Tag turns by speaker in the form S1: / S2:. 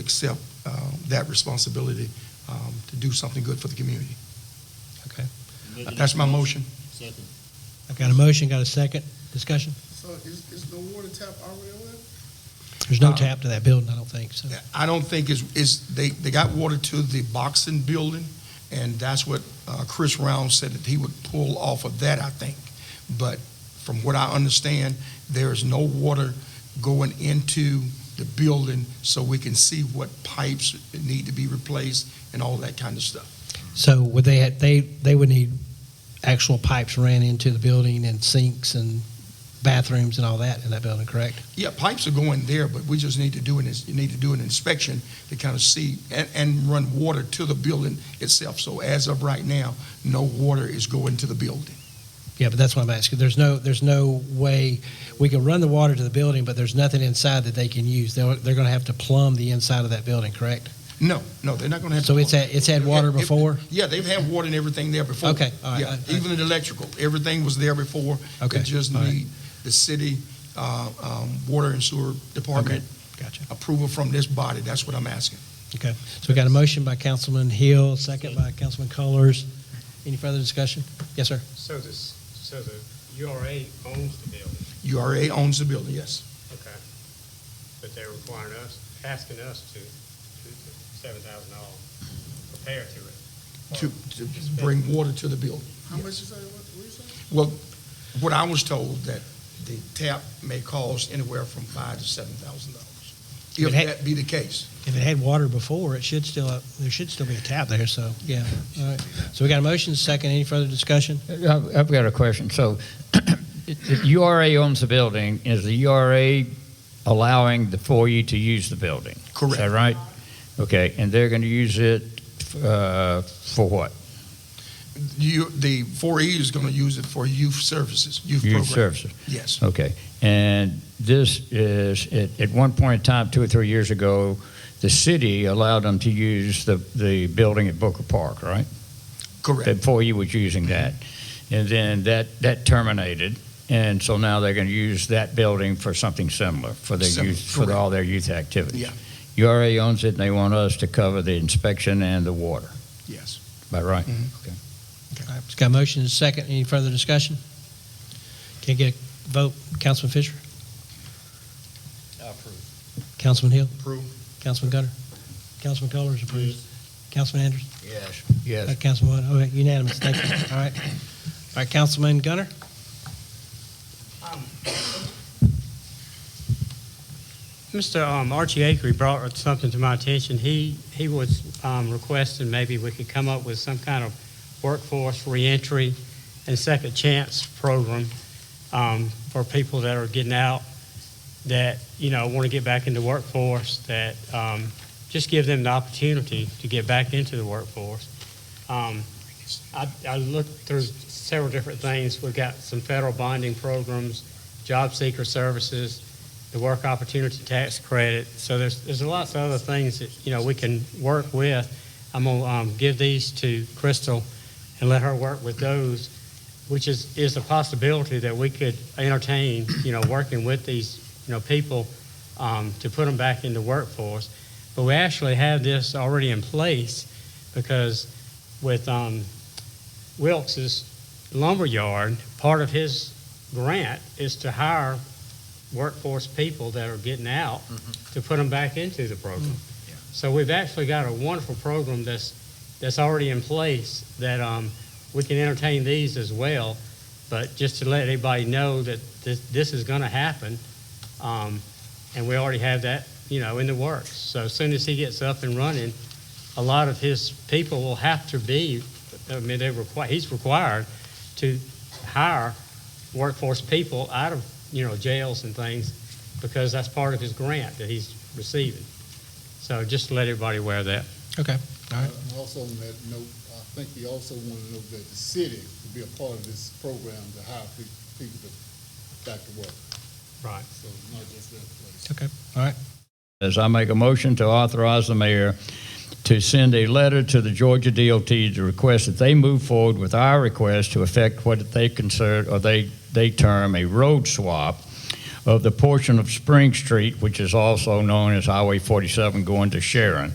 S1: accept uh, that responsibility um, to do something good for the community.
S2: Okay.
S1: That's my motion.
S3: Second.
S2: I've got a motion, got a second. Discussion?
S4: So is, is no water tap already on it?
S2: There's no
S1: Uh,
S2: tap to that building, I don't think, so.
S1: I don't think it's, is, they, they got water to the boxing building, and that's what uh, Chris Round said that he would pull off of that, I think. But from what I understand, there is no water going into the building, so we can see what pipes need to be replaced and all that kind of stuff.
S2: So would they, have- they, they would need actual pipes ran into the building and sinks and bathrooms and all that in that building, correct?
S1: Yeah, pipes are going there, but we just need to do an, you need to do an inspection to kind of see, and, and run water to the building itself. So as of right now, no water is going to the building.
S2: Yeah, but that's what I'm asking. There's no, there's no way, we can run the water to the building, but there's nothing inside that they can use. They're, they're going to have to plumb the inside of that building, correct?
S1: No, no, they're not gonna have.
S2: So it's had, it's had water
S1: Yeah, if-
S2: before?
S1: Yeah, they've had water and everything there before.
S2: Okay, all right,
S1: Yeah,
S2: I- I-
S1: Even the electrical, everything was there before.
S2: Okay,
S1: They just
S2: all right.
S1: need the city, uh, um, water and sewer department
S2: Gotcha.
S1: approval from this body. That's what I'm asking.
S2: Okay, so we got a motion by Councilman Hill, second by Councilman Colors. Any further discussion? Yes, sir.
S5: So this, so the URA owns the building,
S1: URA owns the building, yes.
S5: okay? But they're requiring us, asking us to, to seven thousand dollars repair to it.
S1: To, to bring water to the building.
S4: How much is that, what, what you say?
S1: Well, what I was told that the tap may cost anywhere from five to seven thousand dollars. If
S2: It had-
S1: that be the case.
S2: If it had water before, it should still, there should still be a tap there, so, yeah. All right. So we got a motion, second. Any further discussion?
S6: I've I've got a question. So the URA owns the building. Is the URA allowing the foyer to use the building? Is that right? Okay, and they're going to use it uh, for what?
S1: You, the four E is gonna use it for youth services, youth
S6: Youth
S1: program.
S6: services?
S1: Yes.
S6: Okay. And this is, at- at one point in time, two or three years ago, the city allowed them to use the the building at Booker Park, right?
S1: Correct.
S6: that foyer was using
S1: Mm-hmm.
S6: that. And then that, that terminated, and so now they're going to use that building for something similar, for their
S1: Similar,
S6: youth, for
S1: correct.
S6: all their youth activities.
S1: Yeah.
S6: URA owns it, and they want us to cover the inspection and the water,
S1: Yes.
S6: by right?
S1: Mhm.
S6: Okay.
S2: All right, it's got a motion, second. Any further discussion? Can I get a vote? Councilman Fisher?
S3: Approved.
S2: Councilman Hill?
S1: Approve.
S2: Councilman Gunner? Councilman Colors approves. Councilman Anderson?
S6: Yes,
S2: Uh,
S6: yes.
S2: Councilman Wood? Okay, unanimous. Thank you. All right. All right, Councilman Gunner?
S5: Mr. um, Archie Akery brought something to my attention. He, he was um, requesting maybe we could come up with some kind of workforce reentry and second chance program um, for people that are getting out, that, you know, want to get back into workforce, that um, just give them the opportunity to get back into the workforce. Um, I, I looked through several different things. We've got some federal bonding programs, job seeker services, the work opportunity tax credit. So there's, there's lots of other things that, you know, we can work with. I'm gonna, um, give these to Crystal and let her work with those, which is, is a possibility that we could entertain, you know, working with these, you know, people, um, to put them back into workforce. But we actually have this already in place because with, um, Wilkes's lumberyard, part of his grant is to hire workforce people that are getting out to put them back into the program. So we've actually got a wonderful program that's, that's already in place that um, we can entertain these as well. But just to let everybody know that this, this is going to happen, um, and we already have that, you know, in the works. So as soon as he gets up and running, a lot of his people will have to be, I mean, they require, he's required to hire workforce people out of, you know, jails and things because that's part of his grant that he's receiving. So just to let everybody aware of that.
S2: Okay, all right.
S4: Uh, Also on that note, I think he also wanted to know that the city would be a part of this program to hire pe- people to back to work,
S5: Right.
S4: so not just that place.
S2: Okay, all right.
S6: As I make a motion to authorize the mayor to send a letter to the Georgia DOT to request that they move forward with our request to effect what they consider, or they, they term a road swap of the portion of Spring Street, which is also known as Highway 47 going to Sharon.